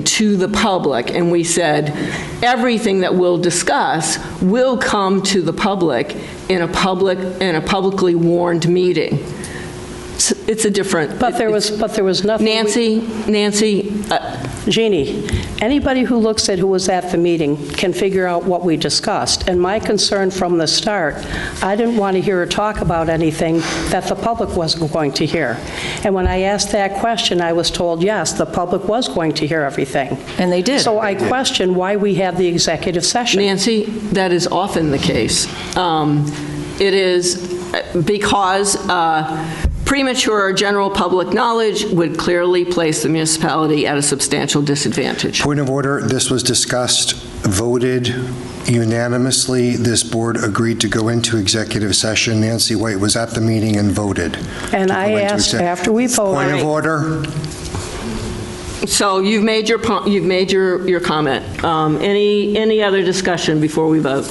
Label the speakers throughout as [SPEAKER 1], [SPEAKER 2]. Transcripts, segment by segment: [SPEAKER 1] to the public, and we said, everything that we'll discuss will come to the public in a public, in a publicly warned meeting. It's- It's a different.
[SPEAKER 2] But there was, but there was nothing. we-
[SPEAKER 1] Nancy, Nancy, uh,
[SPEAKER 2] Jeannie, anybody who looks at who was at the meeting can figure out what we discussed. And my concern from the start, I didn't want to hear her talk about anything that the public wasn't going to hear. And when I asked that question, I was told, yes, the public was going to hear everything.
[SPEAKER 3] And they did.
[SPEAKER 2] So I question why we have the executive session.
[SPEAKER 1] Nancy, that is often the case. Um, It is because uh, premature general public knowledge would clearly place the municipality at a substantial disadvantage.
[SPEAKER 4] Point of order, this was discussed, voted unanimously. This board agreed to go into executive session. Nancy White was at the meeting and voted.
[SPEAKER 2] And
[SPEAKER 4] to go
[SPEAKER 2] I
[SPEAKER 4] into
[SPEAKER 2] asked
[SPEAKER 4] exec-
[SPEAKER 2] after we
[SPEAKER 4] Point
[SPEAKER 2] voted.
[SPEAKER 4] of order,
[SPEAKER 1] So you've made your, po- you've made your, your comment. Um, Any, any other discussion before we vote?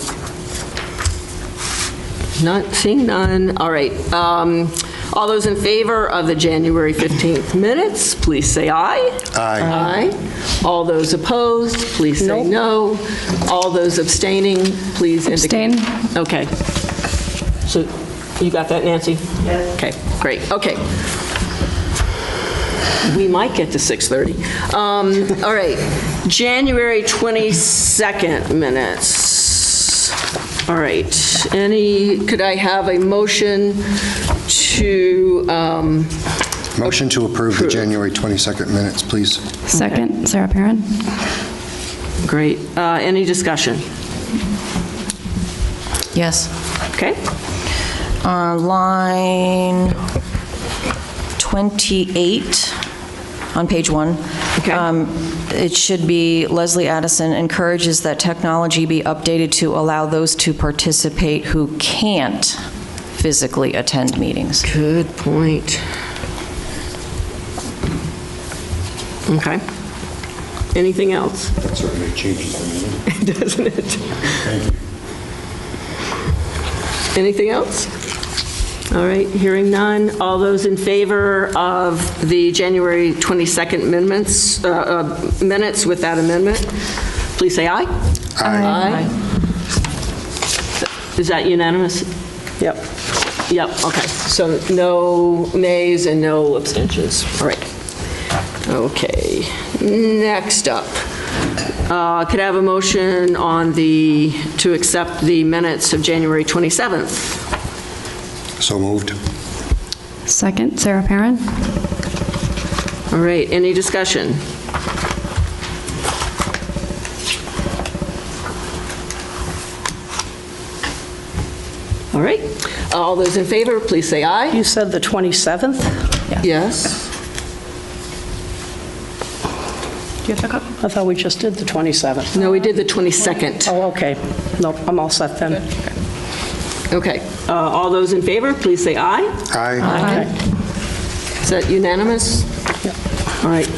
[SPEAKER 1] Not, seeing none, all right. Um, All those in favor of the January 15th minutes, please say aye.
[SPEAKER 4] Aye.
[SPEAKER 1] Aye. All those opposed, please say no. All those abstaining, please indicate. Abstain. Okay. So you got that, Nancy? Yes. Okay, great, okay. We might get to 6:30. Um, All right, January 22nd minutes. All right, any, could I have a motion to, um,
[SPEAKER 4] motion to approve the January 22nd minutes, please.
[SPEAKER 5] Second, Sarah Perrin.
[SPEAKER 1] great, uh, any discussion?
[SPEAKER 3] Yes.
[SPEAKER 1] Okay,
[SPEAKER 3] Uh, Line 28 on page one.
[SPEAKER 1] Okay.
[SPEAKER 3] Um, It should be Leslie Addison encourages that technology be updated to allow those to participate who can't physically attend meetings.
[SPEAKER 1] good point. Okay. Anything else?
[SPEAKER 4] That certainly changes the meeting.
[SPEAKER 1] Doesn't it? Anything else? All right, hearing none. All those in favor of the January 22nd amendments, uh, uh, minutes with that amendment, please say aye. Aye. Is that unanimous?
[SPEAKER 2] Yep.
[SPEAKER 1] Yep, okay. So no nays and no abstentions. All right. Okay. Next up, uh, could I have a motion on the, to accept the minutes of January 27th?
[SPEAKER 4] So moved.
[SPEAKER 5] Second, Sarah Perrin.
[SPEAKER 1] All right, any discussion? All right. Uh, All those in favor, please say aye.
[SPEAKER 2] You said the 27th?
[SPEAKER 1] Yes.
[SPEAKER 2] I thought we just did the 27th.
[SPEAKER 1] No, we did the 22nd.
[SPEAKER 2] Oh, okay. Nope, I'm all set then.
[SPEAKER 1] Okay. Uh, All those in favor, please say aye.
[SPEAKER 4] Aye.
[SPEAKER 1] Is that unanimous? All right.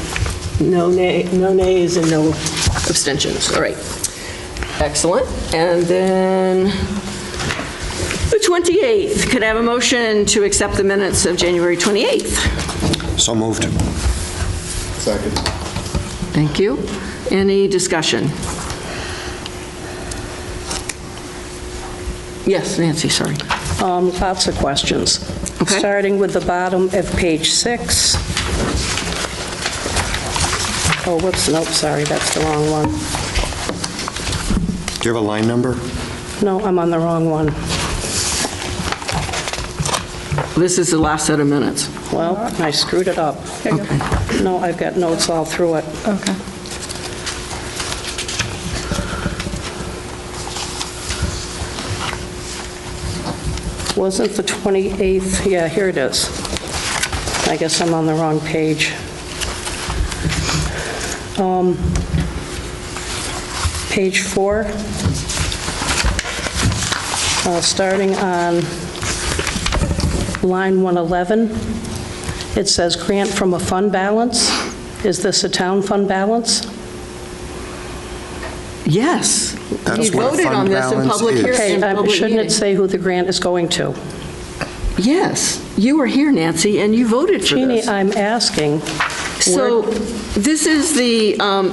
[SPEAKER 1] No nay, no nays and no abstentions. All right. Excellent. And then the 28th, could I have a motion to accept the minutes of January 28th?
[SPEAKER 4] So moved. Second.
[SPEAKER 1] Thank you. Any discussion? Yes, Nancy, sorry.
[SPEAKER 2] Um, Lots of questions.
[SPEAKER 1] Okay.
[SPEAKER 2] Starting with the bottom of page six. Oh, whoops, nope, sorry, that's the wrong one.
[SPEAKER 4] Do you have a line number?
[SPEAKER 2] No, I'm on the wrong one.
[SPEAKER 1] This is the last set of minutes.
[SPEAKER 2] Well, I screwed it up. No, I've got notes all through it.
[SPEAKER 5] Okay.
[SPEAKER 2] Wasn't the 28th, yeah, here it is. I guess I'm on the wrong page. Um, Page four, Uh, starting on line 111, it says grant from a fund balance. Is this a town fund balance?
[SPEAKER 1] Yes.
[SPEAKER 4] That's
[SPEAKER 1] We
[SPEAKER 4] what a
[SPEAKER 1] voted
[SPEAKER 4] fund
[SPEAKER 1] on this in
[SPEAKER 4] balance
[SPEAKER 1] public
[SPEAKER 4] is.
[SPEAKER 1] hear-
[SPEAKER 2] Okay,
[SPEAKER 1] in
[SPEAKER 2] uh,
[SPEAKER 1] public
[SPEAKER 2] shouldn't it
[SPEAKER 1] meeting.
[SPEAKER 2] say who the grant is going to?
[SPEAKER 1] Yes, you were here,
[SPEAKER 2] uh,
[SPEAKER 1] Nancy, and you voted for
[SPEAKER 2] Jeannie,
[SPEAKER 1] this.
[SPEAKER 2] I'm asking,
[SPEAKER 1] So this is the, um,